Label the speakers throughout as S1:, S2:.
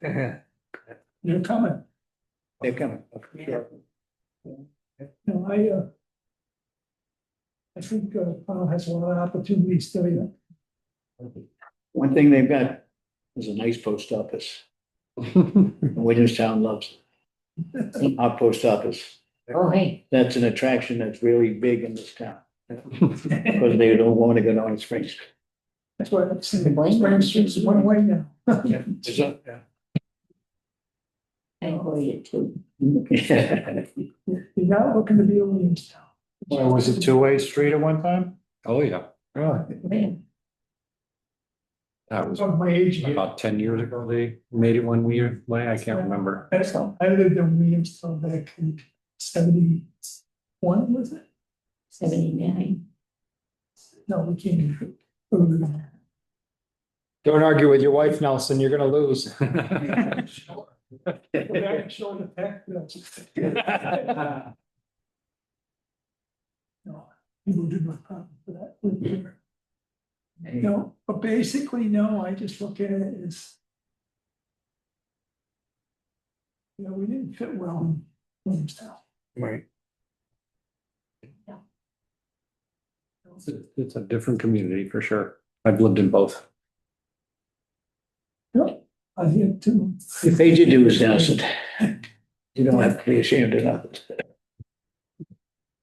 S1: They're
S2: They're coming.
S1: coming.
S2: Yeah. No, I, uh. I think, uh, Powell has a lot of opportunities still, you know.
S1: One thing they've got is a nice post office. Williamstown loves it. our post office.
S3: Oh, hey,
S1: That's an attraction that's really big in this town. Because they don't want to go down to Springs.
S2: That's why I'm saying,
S3: Blaine.
S2: Spring Street's one way now.
S3: I voted too.
S2: You're not looking to be a Williamstown.
S4: Well, was it two-way street at one time?
S5: Oh, yeah,
S4: Really?
S3: Man,
S5: that was
S2: Of my age here.
S5: about ten years ago, they made it one year, way, I can't remember.
S2: That's all. I lived in Williamstown back in seventy-one, was it?
S3: seventy-nine.
S2: No, we came. in-
S4: Don't argue with your wife, Nelson, you're gonna lose.
S2: Go back and show the pack, you know.
S4: Well,
S2: No, people do not come for that. with their- No, but basically, no, I just look at it as. You know, we didn't fit well in Williamstown.
S1: Right.
S5: It's a- It's a different community for sure. I've lived in both.
S2: I hear too.
S1: If they did do is innocent, you don't have to be ashamed of nothing.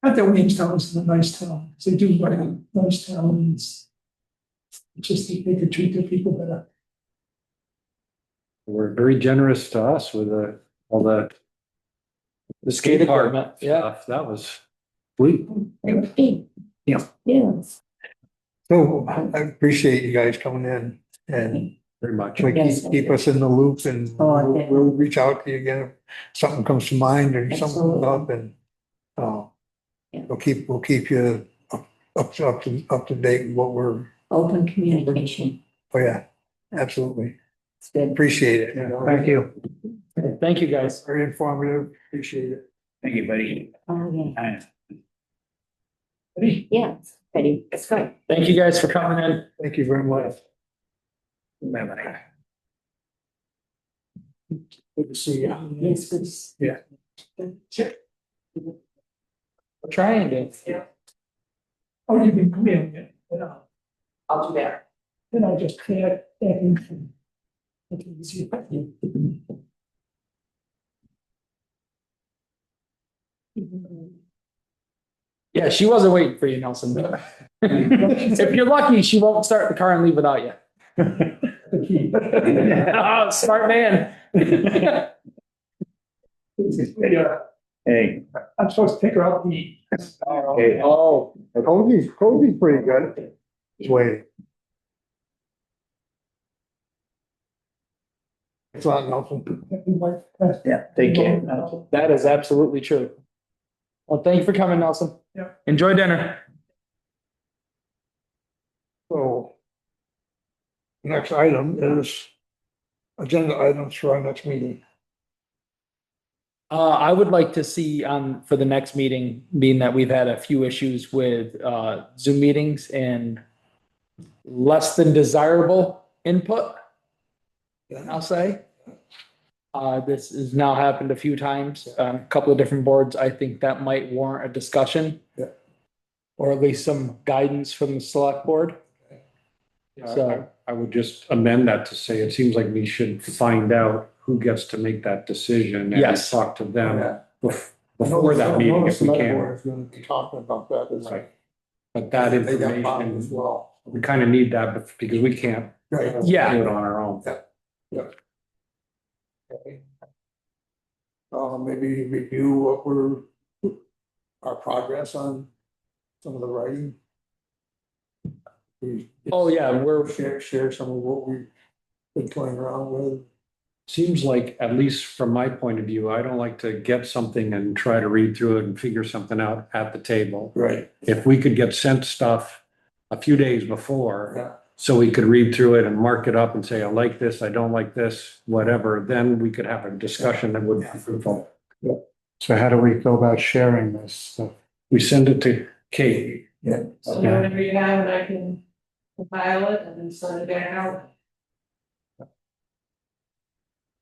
S2: Not that Williamstown is a nice town, 'cause they do run nice towns. It's Just that they could treat their people better.
S5: We're very generous to us with uh, all the
S4: The skate
S5: park
S4: department, yeah.
S5: stuff. That was, we,
S3: They were big.
S1: Yeah.
S3: Yes.
S6: So I appreciate you guys coming in and
S5: very much.
S6: like,
S3: Yes.
S6: keep, keep us in the loop and
S3: Oh, yeah.
S6: we'll, we'll reach out to you again. if Something comes to mind or something comes up and, uh,
S3: Yeah.
S6: we'll keep, we'll keep you up, up, up to, up to date with what we're,
S3: Open communication.
S6: oh yeah, absolutely.
S3: It's good.
S6: Appreciate it. you know.
S4: Thank you. Thank you, guys.
S6: Very informative. Appreciate it.
S1: Thank you, buddy.
S3: Oh, yeah.
S2: Ready?
S3: Yeah, it's pretty. It's good.
S4: Thank you guys for coming in.
S6: Thank you very much.
S1: Bye-bye.
S6: Good to see you.
S3: Yes, good.
S4: Trying to.
S2: Oh, you've been clearing it, you know,
S3: I'll do that.
S2: then I just cleared everything.
S3: Okay, you see, but you- Mm-hmm.
S4: Yeah, she wasn't waiting for you, Nelson. If you're lucky, she won't start the car and leave without you. Oh, smart man.
S1: Hey,
S2: I'm supposed to take her out to eat.
S1: hey,
S4: Oh,
S6: Cody's, Cody's pretty good. He's waiting. It's not Nelson.
S1: yeah, take care.
S4: that is absolutely true. Well, thank you for coming, Nelson.
S2: Yeah.
S4: Enjoy dinner.
S6: So. Next item is agenda items for our next meeting.
S4: Uh, I would like to see on for the next meeting, being that we've had a few issues with uh Zoom meetings and less than desirable input, I'll say. Uh, this has now happened a few times, on a couple of different boards. I think that might warrant a discussion.
S6: Yeah.
S4: Or at least some guidance from the select board.
S5: So I would just amend that to say, it seems like we should find out who gets to make that decision. and
S4: Yes.
S5: Talk to them bef- before that meeting if we can.
S6: Is gonna be talking about that. is-
S5: Right. But that
S6: They got bombed as
S5: information,
S6: well.
S5: we kind of need that bef- because we can't
S6: Right.
S4: Yeah.
S5: do it on our own.
S6: Okay. Uh, maybe review what we're, our progress on some of the writing. We-
S4: Oh, yeah, we're,
S6: Share, share some of what we've been playing around with.
S5: Seems like, at least from my point of view, I don't like to get something and try to read through it and figure something out at the table.
S6: Right.
S5: If we could get sent stuff a few days before,
S6: Yeah,
S5: so we could read through it and mark it up and say, I like this, I don't like this, whatever, then we could have a discussion that would be fruitful.
S7: So how do we go about sharing this stuff?
S5: We send it to Kate.
S6: yeah.
S8: So whatever you have, and I can compile it and then send it back out.